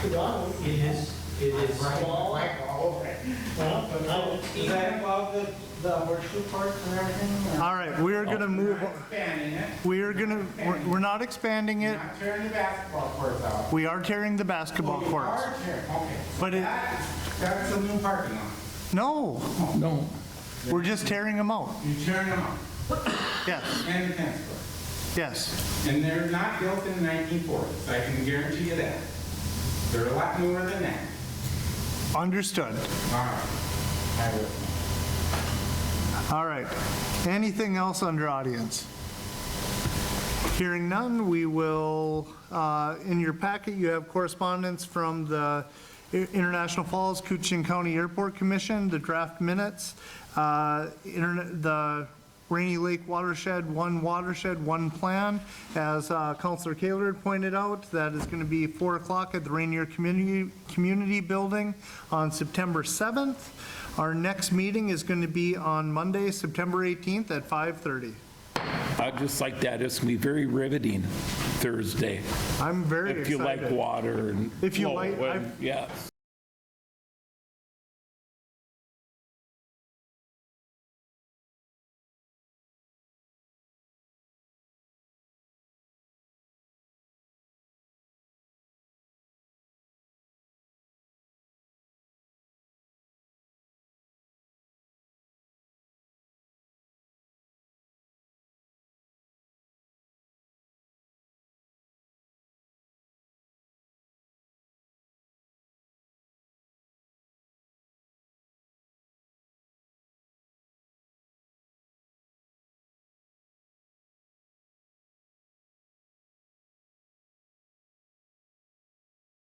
Well, It is, it is small. but now Does that involve the, the worship park and everything? or- All right, we're going to move, Expanding it, we're going to, we're we're not expanding it. not tearing the basketball courts out. We are tearing the basketball Oh, you courts. are tearing- Okay. But it- That- That's a new parking lot. No, No, we're just tearing them out. You're tearing them out, Yes, and the tennis court. yes. And they're not built in the 1940s, I can guarantee you that. They're a lot newer than that. Understood. All right. I will. All right. Anything else under audience? Hearing none, we will, uh, in your packet, you have correspondence from the I- International Falls Coochin County Airport Commission, the draft minutes, uh, interne- the Rainy Lake Watershed, One Watershed, One Plan. As uh, Counselor Kaler had pointed out, that is going to be 4 o'clock at the Rainier Community, Community Building on September 7th. Our next meeting is going to be on Monday, September 18th at 5:30. I just like that. It's going to be very riveting Thursday. I'm very If you excited. like water and. If you flow like- and- I've- Yes.